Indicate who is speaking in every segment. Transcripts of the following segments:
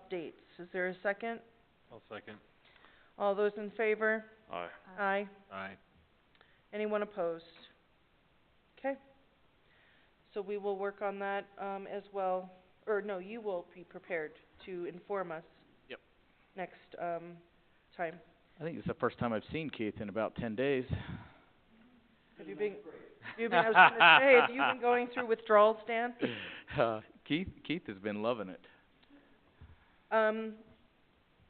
Speaker 1: updates. Is there a second?
Speaker 2: I'll second.
Speaker 1: All those in favor?
Speaker 2: Aye.
Speaker 1: Aye.
Speaker 2: Aye.
Speaker 1: Anyone opposed? Okay. So we will work on that, um, as well, or no, you will be prepared to inform us.
Speaker 2: Yep.
Speaker 1: Next, um, time.
Speaker 3: I think it's the first time I've seen Keith in about ten days.
Speaker 1: Have you been, you've been, I was gonna say, have you been going through withdrawals, Dan?
Speaker 3: Uh, Keith, Keith has been loving it.
Speaker 1: Um,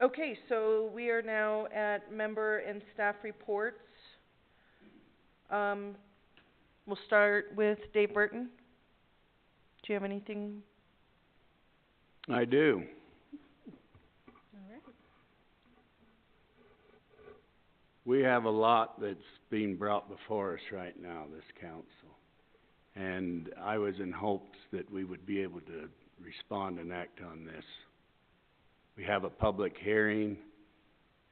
Speaker 1: okay, so we are now at member and staff reports. Um, we'll start with Dave Burton. Do you have anything?
Speaker 4: I do. We have a lot that's being brought before us right now, this council. And I was in hopes that we would be able to respond and act on this. We have a public hearing,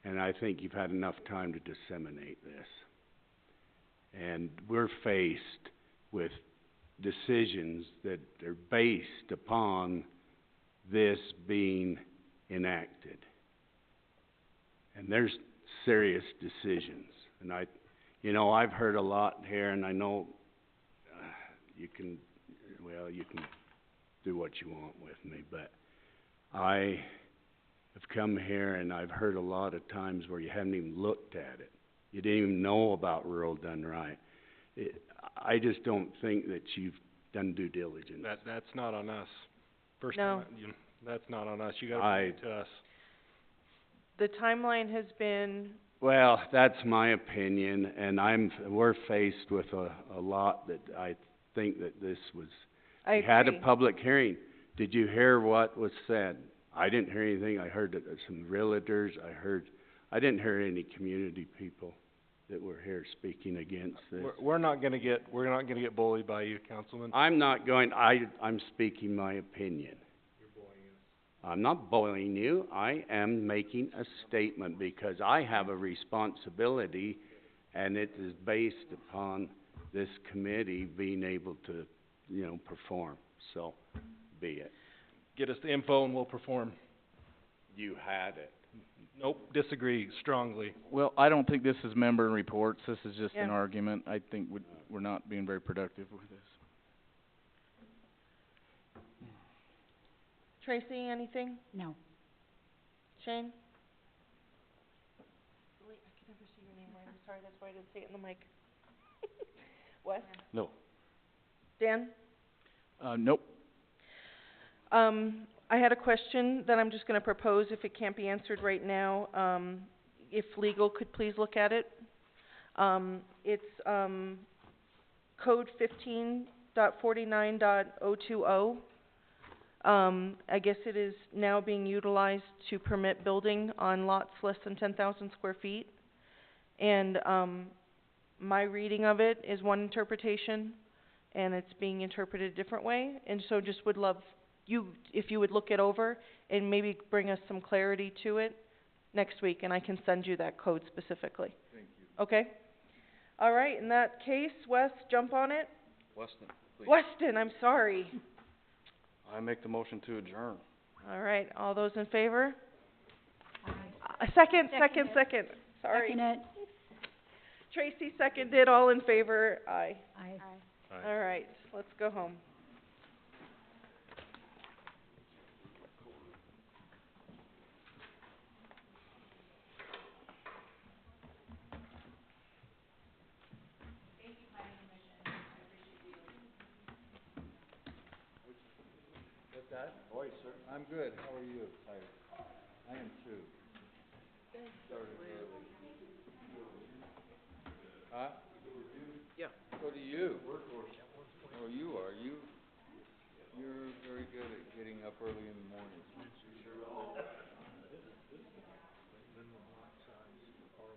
Speaker 4: and I think you've had enough time to disseminate this. And we're faced with decisions that are based upon this being enacted. And there's serious decisions, and I, you know, I've heard a lot here, and I know, uh, you can, well, you can do what you want with me, but I have come here and I've heard a lot of times where you haven't even looked at it. You didn't even know about rural done right. It, I just don't think that you've done due diligence.
Speaker 2: That, that's not on us. First
Speaker 1: No.
Speaker 2: time, I- you, that's not on us. You gotta bring it to us.
Speaker 1: The timeline has been,
Speaker 4: Well, that's my opinion, and I'm, we're faced with a, a lot that I think that this was,
Speaker 1: I
Speaker 4: we had a
Speaker 1: agree.
Speaker 4: public hearing. Did you hear what was said? I didn't hear anything. I heard that there's some realtors, I heard, I didn't hear any community people that were here speaking against this.
Speaker 2: We're, we're not gonna get, we're not gonna get bullied by you, Councilman.
Speaker 4: I'm not going, I, I'm speaking my opinion. I'm not bullying you, I am making a statement because I have a responsibility and it is based upon this committee being able to, you know, perform, so be it.
Speaker 2: Get us the info and we'll perform.
Speaker 4: You had it.
Speaker 2: Nope, disagree strongly.
Speaker 3: Well, I don't think this is member reports, this is just an
Speaker 1: Yeah.
Speaker 3: argument. I think we, we're not being very productive with this.
Speaker 1: Tracy, anything?
Speaker 5: No.
Speaker 1: Shane? Wait, I can never see your name right. I'm sorry, that's why I didn't say it in the mic. What?
Speaker 3: No.
Speaker 1: Dan?
Speaker 3: Uh, nope.
Speaker 1: Um, I had a question that I'm just gonna propose if it can't be answered right now, um, if legal could please look at it. Um, it's, um, code fifteen dot forty-nine dot oh two oh. Um, I guess it is now being utilized to permit building on lots less than ten thousand square feet. And, um, my reading of it is one interpretation, and it's being interpreted a different way, and so just would love you, if you would look it over and maybe bring us some clarity to it next week, and I can send you that code specifically. Thank you. Okay? All right, in that case, Wes, jump on it.
Speaker 6: Weston, please.
Speaker 1: Weston, I'm sorry.
Speaker 6: I make the motion to adjourn.
Speaker 1: All right, all those in favor? A second, second,
Speaker 5: Seconded.
Speaker 1: second, sorry.
Speaker 5: Second it.
Speaker 1: Tracy seconded, all in favor, aye.
Speaker 5: Aye.
Speaker 2: Aye.
Speaker 1: All right, let's go home.
Speaker 6: So do you. Oh, you are, you, you're very good at getting up early in the morning.